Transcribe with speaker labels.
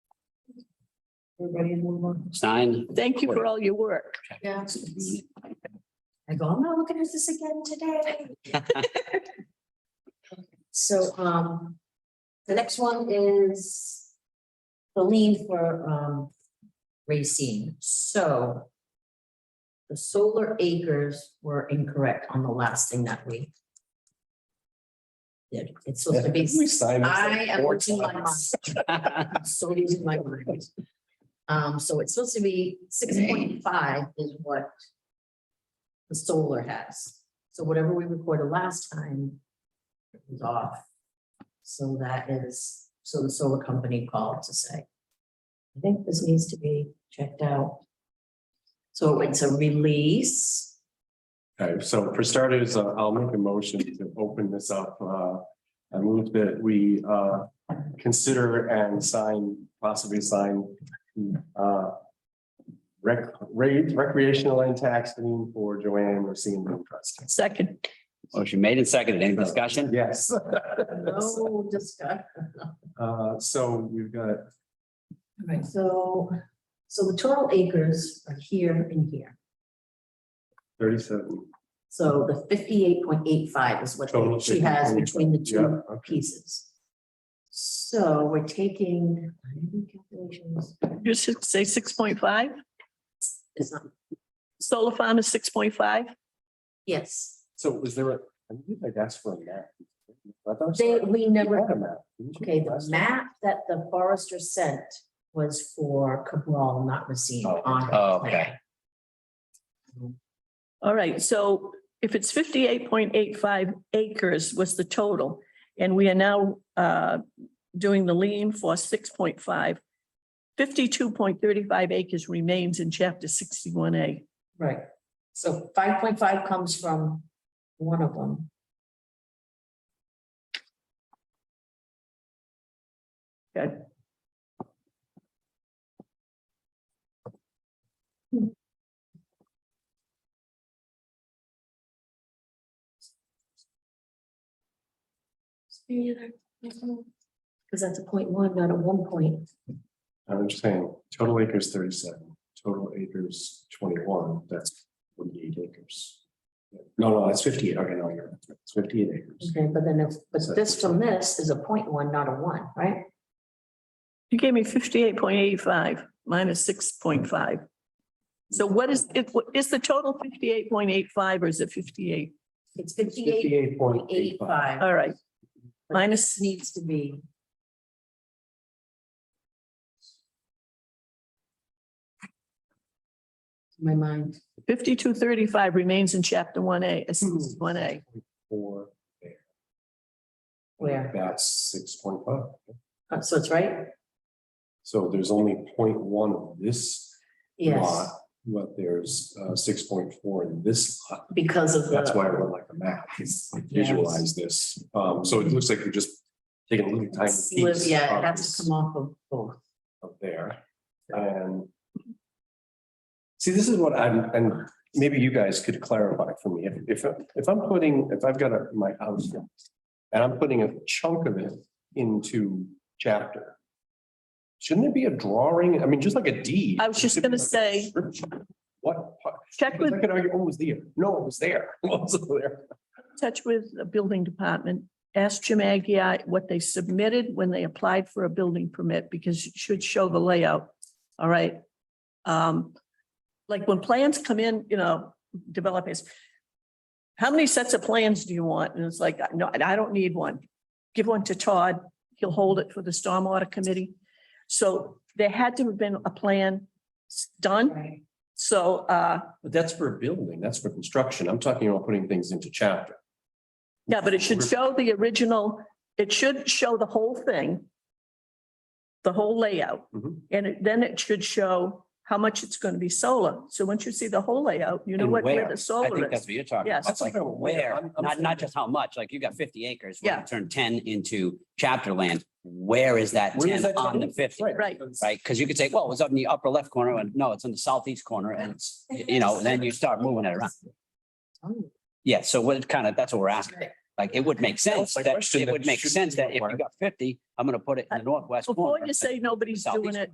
Speaker 1: Everybody in one month.
Speaker 2: Stein,
Speaker 3: Thank you for all your work.
Speaker 1: Yeah. I go, I'm not looking at this again today. So, um, the next one is the lien for, um, Racine, so the solar acres were incorrect on the last thing that we did. It's supposed to be,
Speaker 4: signed this like
Speaker 1: I am
Speaker 4: four
Speaker 1: working my mind.
Speaker 4: times.
Speaker 1: I'm so losing my mind. Um, so it's supposed to be six point five is what the solar has. So whatever we recorded last time was off. So that is, so the solar company called to say, I think this needs to be checked out. So it's a release.
Speaker 4: Okay, so for starters, uh, I'll make a motion to open this up. Uh, I move that we, uh, consider and sign, possibly sign, uh, rec, re- recreational land tax lien for Joanne Racine Road Trust.
Speaker 3: Second,
Speaker 2: motion made and seconded. Any discussion?
Speaker 4: Yes.
Speaker 1: No discussion.
Speaker 4: Uh, so we've got,
Speaker 1: Right, so, so the total acres are here and here.
Speaker 4: Thirty-seven.
Speaker 1: So the fifty-eight point eight five is what
Speaker 4: Total
Speaker 1: she has
Speaker 4: 58.85.
Speaker 1: between the
Speaker 4: Yeah,
Speaker 1: two
Speaker 4: okay.
Speaker 1: pieces. So we're taking, I didn't do calculations,
Speaker 3: you should say six point five,
Speaker 1: it's not,
Speaker 3: solar farm is six point five.
Speaker 1: yes,
Speaker 4: So was there a, I think I asked for a map. I thought
Speaker 1: they,
Speaker 4: you
Speaker 1: we
Speaker 4: had
Speaker 1: never,
Speaker 4: a map. didn't you?
Speaker 1: okay, the map that the forester sent was for Cabral, not Racine
Speaker 4: Oh,
Speaker 1: on. her
Speaker 2: Oh,
Speaker 1: plan.
Speaker 2: okay.
Speaker 3: All right, so if it's fifty-eight point eight five acres was the total, and we are now uh, doing the lien for six point five. Fifty-two point thirty-five acres remains in chapter sixty-one A.
Speaker 1: Right, so five point five comes from one of them.
Speaker 3: Okay.
Speaker 1: Because that's a point one, not a one point.
Speaker 4: I'm just saying, total acres thirty-seven, total acres twenty-one, that's forty-eight acres. No, no, that's fifty-eight, okay, no, you're, right. it's fifty-eight acres.
Speaker 1: Okay, but then if, but this from this is a point one, not a one, right?
Speaker 3: You gave me fifty-eight point eight five minus six point five. So what is, it? is the total fifty-eight point eight five or is it fifty-eight?
Speaker 1: It's fifty-eight
Speaker 4: Fifty-eight point
Speaker 1: point eight five
Speaker 3: All right. Minus
Speaker 1: needs to be. My mind,
Speaker 3: fifty-two thirty-five remains in chapter one A, one A.
Speaker 4: Four,
Speaker 1: where,
Speaker 4: that's six point five.
Speaker 1: Uh, so it's right?
Speaker 4: So there's only 0.1 of this lot,
Speaker 1: Yes,
Speaker 4: but there's uh six point four in this lot.
Speaker 1: because of the.
Speaker 4: That's why I would like a map, is to visualize this. Um, so it looks like you're just taking a little tiny
Speaker 1: It's live-
Speaker 4: piece.
Speaker 1: Yeah,
Speaker 4: of
Speaker 1: it has
Speaker 4: this.
Speaker 1: to come off of both.
Speaker 4: up there and. See, this is what I'm, and maybe you guys could clarify for me, if, if, if I'm putting, if I've got a, my house. And I'm putting a chunk of it into chapter. Shouldn't it be a drawing? I mean, just like a deed.
Speaker 3: I was just
Speaker 4: It should be
Speaker 3: gonna
Speaker 4: like a
Speaker 3: say-
Speaker 4: description. What? part?
Speaker 3: Check
Speaker 4: Because
Speaker 3: with,
Speaker 4: I could argue, oh, it was there. No, it was there. It wasn't there.
Speaker 3: touch with the building department. Ask Jim Agia what they submitted when they applied for a building permit, because it should show the layout. All right. Um, like when plans come in, you know, developers. How many sets of plans do you want? And it's like, no, I don't need one. Give one to Todd. He'll hold it for the stormwater committee. So there had to have been a plan s- done.
Speaker 1: Right.
Speaker 3: So, uh,
Speaker 4: But that's for building, that's for construction. I'm talking about putting things into chapter.
Speaker 3: Yeah, but it should show the original, it should show the whole thing. The whole layout,
Speaker 2: Mm-hmm.
Speaker 4: Mhm.
Speaker 3: and it- then it should show how much it's going to be solar. So once you see the whole layout, you know
Speaker 2: And
Speaker 3: what, where
Speaker 2: where.
Speaker 3: the
Speaker 2: I think
Speaker 3: solar
Speaker 2: that's
Speaker 3: is.
Speaker 2: what you're talking
Speaker 3: Yes.
Speaker 2: about. It's like
Speaker 4: That's what I'm-
Speaker 2: where,
Speaker 4: I'm- I'm
Speaker 2: not,
Speaker 4: saying-
Speaker 2: not just how much, like you got fifty acres. when you
Speaker 3: Yeah.
Speaker 2: Turn ten into chapter land. Where is that
Speaker 4: Where
Speaker 2: ten
Speaker 4: is that
Speaker 2: on the
Speaker 4: coming?
Speaker 2: fifty?
Speaker 3: Right.
Speaker 2: Right? Because you could say, well, it was up in the upper left corner and no, it's in the southeast corner and it's, you know, then you start moving it around.
Speaker 1: Oh,
Speaker 2: Yeah. So what it kind of, that's what we're asking.
Speaker 1: right.
Speaker 2: Like, it would make sense
Speaker 4: my
Speaker 2: that,
Speaker 4: question,
Speaker 2: it
Speaker 4: that
Speaker 2: would make
Speaker 4: shouldn't
Speaker 2: sense
Speaker 4: be
Speaker 2: that if you
Speaker 4: required.
Speaker 2: got fifty, I'm gonna put it in the northwest
Speaker 3: Before
Speaker 2: corner.
Speaker 3: you say nobody's doing
Speaker 2: Southeast.
Speaker 3: it,